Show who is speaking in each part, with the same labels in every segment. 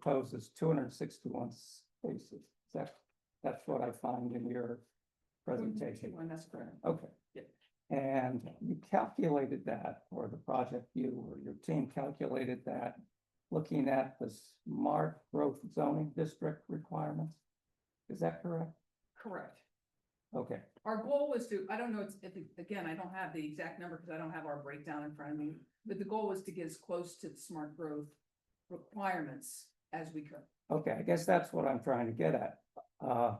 Speaker 1: proposes two hundred and sixty-one spaces. That, that's what I find in your presentation.
Speaker 2: One, that's correct.
Speaker 1: Okay.
Speaker 2: Yeah.
Speaker 1: And you calculated that, or the project you or your team calculated that, looking at the smart growth zoning district requirements? Is that correct?
Speaker 2: Correct.
Speaker 1: Okay,
Speaker 2: Our goal was to, I don't know, it's, if, it- again, I don't have the exact number because I don't have our breakdown in front of me, but the goal was to get as close to the smart growth requirements as we could.
Speaker 1: okay, I guess that's what I'm trying to get at. Uh,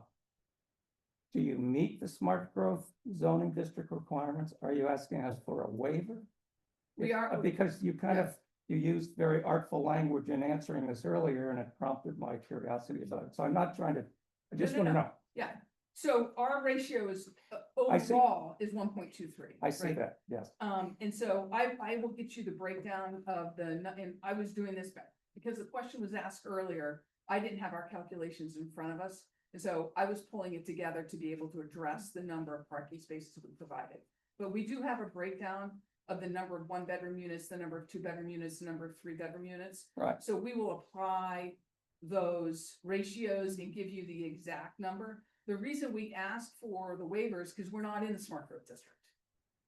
Speaker 1: Do you meet the smart growth zoning district requirements? Are you asking us for a waiver?
Speaker 2: We are-
Speaker 1: Uh, Because you kind of, you used very artful language in answering this earlier and it prompted my curiosity about it. So I'm not trying to, I just
Speaker 2: no,
Speaker 1: want to
Speaker 2: no.
Speaker 1: know.
Speaker 2: So our ratio is, uh,
Speaker 1: I see.
Speaker 2: overall is one point two three.
Speaker 1: I see that, yes.
Speaker 2: Um, and so I, I will get you the breakdown of the, nu- and I was doing this back, because the question was asked earlier. I didn't have our calculations in front of us, and so I was pulling it together to be able to address the number of parking spaces we provided. But we do have a breakdown of the number of one-bedroom units, the number of two-bedroom units, the number of three-bedroom units.
Speaker 1: Right.
Speaker 2: So we will apply those ratios and give you the exact number. The reason we asked for the waivers, because we're not in the smart growth district,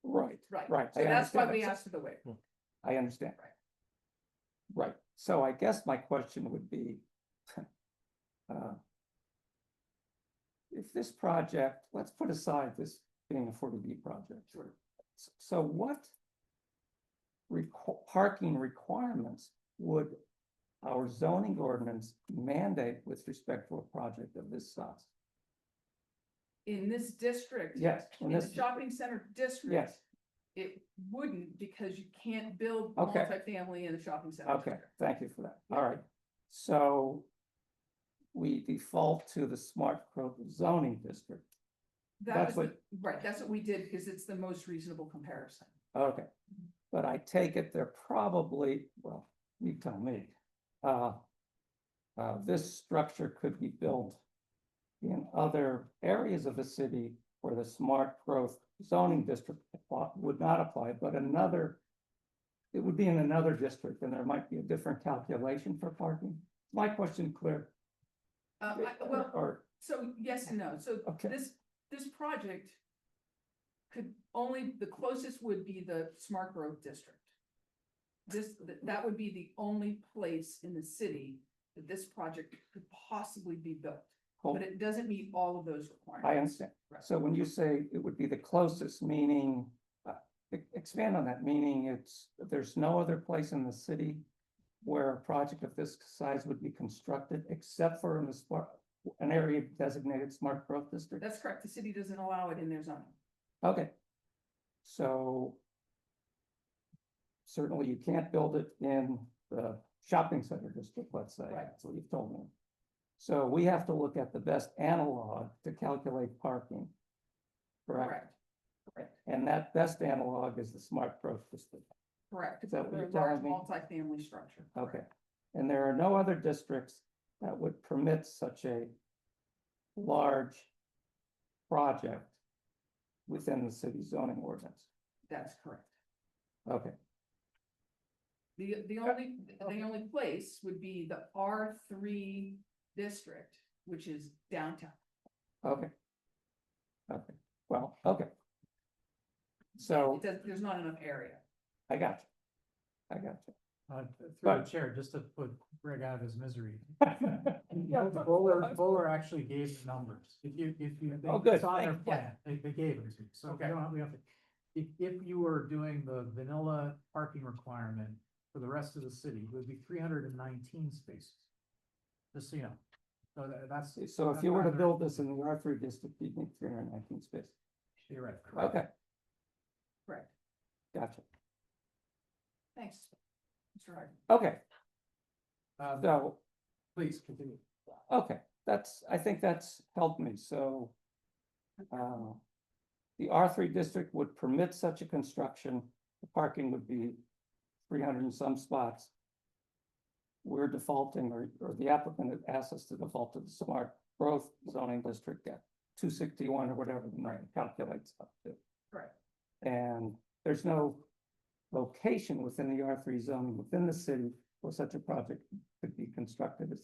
Speaker 1: Right,
Speaker 2: right?
Speaker 1: right.
Speaker 2: So
Speaker 1: I
Speaker 2: that's why
Speaker 1: understand
Speaker 2: we
Speaker 1: that.
Speaker 2: asked for the waiver.
Speaker 1: I understand. Right, so I guess my question would be. uh, If this project, let's put aside this being a forty B project.
Speaker 2: Sure.
Speaker 1: S- So what? requ- parking requirements would our zoning ordinance mandate with respect to a project of this size?
Speaker 2: In this district.
Speaker 1: Yes, in
Speaker 2: In the
Speaker 1: this,
Speaker 2: shopping center district.
Speaker 1: yes,
Speaker 2: It wouldn't because you can't build
Speaker 1: Okay.
Speaker 2: multifamily in the shopping center.
Speaker 1: Okay,
Speaker 2: district.
Speaker 1: thank you for that. All right, so we default to the smart growth zoning district.
Speaker 2: That
Speaker 1: That's
Speaker 2: was, the- right, that's what we did because it's the most reasonable comparison.
Speaker 1: Okay, but I take it they're probably, well, you tell me. Uh, uh, this structure could be built in other areas of the city where the smart growth zoning district apply- would not apply, but another, it would be in another district and there might be a different calculation for parking. My question clear?
Speaker 2: Uh, I- well,
Speaker 1: Or,
Speaker 2: so yes and no. So
Speaker 1: okay.
Speaker 2: this, this project could only, the closest would be the smart growth district. This, th- that would be the only place in the city that this project could possibly be built.
Speaker 1: Cool.
Speaker 2: But it doesn't meet all of those requirements.
Speaker 1: I understand.
Speaker 2: Right.
Speaker 1: So when you say it would be the closest, meaning, uh, e- expand on that, meaning it's, there's no other place in the city where a project of this size would be constructed except for in the smart, an area designated smart growth district?
Speaker 2: That's correct. The city doesn't allow it in their zoning.
Speaker 1: Okay. So certainly you can't build it in the shopping center district, let's say,
Speaker 2: Right.
Speaker 1: that's what you've told me. So we have to look at the best analog to calculate parking. Correct?
Speaker 2: Correct. Correct.
Speaker 1: And that best analog is the smart growth district.
Speaker 2: Correct.
Speaker 1: Is that what
Speaker 2: For a
Speaker 1: you're
Speaker 2: large
Speaker 1: telling me?
Speaker 2: Multifamily structure.
Speaker 1: Okay. And there are no other districts that would permit such a large project within the city zoning ordinance.
Speaker 2: That's correct.
Speaker 1: Okay,
Speaker 2: The, the
Speaker 1: Uh,
Speaker 2: only, the only place would be the R three district, which is downtown.
Speaker 1: okay. Okay, well, okay. So
Speaker 2: It does, there's not enough area.
Speaker 1: I got you. I got
Speaker 3: Uh, th- through
Speaker 1: But-
Speaker 3: the chair, just to put Greg out of his misery.
Speaker 1: you.
Speaker 3: Bowler, Bowler actually gave the numbers. If you, if you. they-
Speaker 1: Oh, good.
Speaker 3: It's on their
Speaker 1: Thank- yeah.
Speaker 3: plan. They, they gave it to you. So we
Speaker 1: Okay.
Speaker 3: don't, we have to. If, if you were doing the vanilla parking requirement for the rest of the city, it would be three hundred and nineteen spaces. Just so you know. So tha- that's
Speaker 1: So if you were to build this in the R three district, you'd need three hundred and nineteen spaces.
Speaker 3: theoretical.
Speaker 1: Okay.
Speaker 2: Correct.
Speaker 1: Gotcha.
Speaker 2: Thanks. Mr. Harden.
Speaker 1: Okay,
Speaker 3: Um,
Speaker 1: so
Speaker 3: please continue.
Speaker 1: Okay, that's, I think that's helped me, so. uh, The R three district would permit such a construction, the parking would be three hundred and some spots. We're defaulting, or, or the applicant has asked us to default to the smart growth zoning district at two sixty-one or whatever the number calculates up to.
Speaker 2: Correct.
Speaker 1: And there's no location within the R three zone, within the city, where such a project could be constructed, is